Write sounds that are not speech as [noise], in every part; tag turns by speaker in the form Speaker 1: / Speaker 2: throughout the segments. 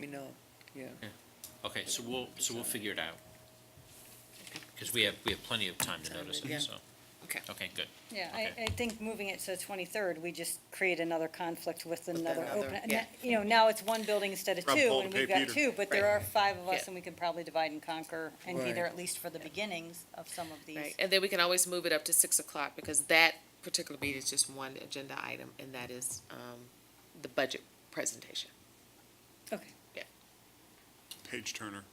Speaker 1: me know, yeah.
Speaker 2: Okay, so we'll, so we'll figure it out. Because we have, we have plenty of time to notice
Speaker 1: Yeah.
Speaker 2: it, so,
Speaker 1: Okay.
Speaker 2: okay, good.
Speaker 3: Yeah, I,
Speaker 2: Okay.
Speaker 3: I think moving it to the twenty-third, we just create another conflict with another
Speaker 1: another-
Speaker 3: open.
Speaker 1: yeah.
Speaker 3: You know, now it's one building instead of
Speaker 4: Rob
Speaker 3: two,
Speaker 4: Paul
Speaker 3: and
Speaker 4: to
Speaker 3: we've
Speaker 4: pay
Speaker 3: got
Speaker 4: Peter.
Speaker 3: two, but there are
Speaker 1: Right.
Speaker 3: five of
Speaker 5: Yeah.
Speaker 3: us, and we can probably divide and conquer, and be there
Speaker 1: Right.
Speaker 3: at least for the beginnings of some of these.
Speaker 5: Right, and then we can always move it up to six o'clock, because that particular meeting is just one agenda item, and that is, um, the budget presentation.
Speaker 3: Okay.
Speaker 4: Page Turner.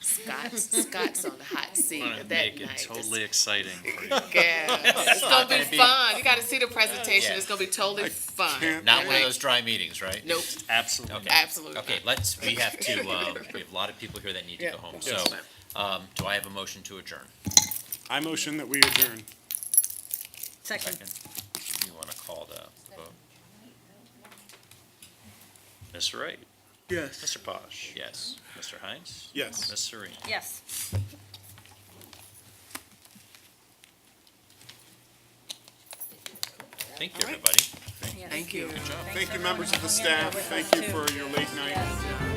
Speaker 5: Scott's, Scott's on the hot seat
Speaker 2: Wanna
Speaker 5: that night.
Speaker 2: make it
Speaker 5: Just-
Speaker 2: totally exciting. for you. [laughs]
Speaker 5: Yeah, it's gonna
Speaker 2: gonna
Speaker 5: be
Speaker 2: be-
Speaker 5: fun, you gotta see the presentation,
Speaker 2: Yeah.
Speaker 5: it's gonna be totally
Speaker 4: I
Speaker 5: fun.
Speaker 4: can't-
Speaker 2: Not one
Speaker 5: Like,
Speaker 2: of those dry meetings, right?
Speaker 5: Nope,
Speaker 2: Absolutely.
Speaker 5: absolutely
Speaker 2: Okay,
Speaker 5: not.
Speaker 2: let's, we have to, um, we have a lot of people here that need to
Speaker 1: Yeah,
Speaker 2: go home,
Speaker 1: that's
Speaker 2: so, um, do I have a motion to adjourn?
Speaker 4: I motion that we adjourn.
Speaker 3: Second.
Speaker 2: Second. You wanna call the vote? Ms. Wright?
Speaker 1: Yes.
Speaker 2: Mr. Posh? Yes. Mr. Heinz?
Speaker 4: Yes.
Speaker 2: Ms. Serena?
Speaker 3: Yes.
Speaker 2: Thank you, everybody.
Speaker 3: yes.
Speaker 1: Thank you.
Speaker 4: Thank you, members of the staff. Thank you for your late night.
Speaker 3: Yes.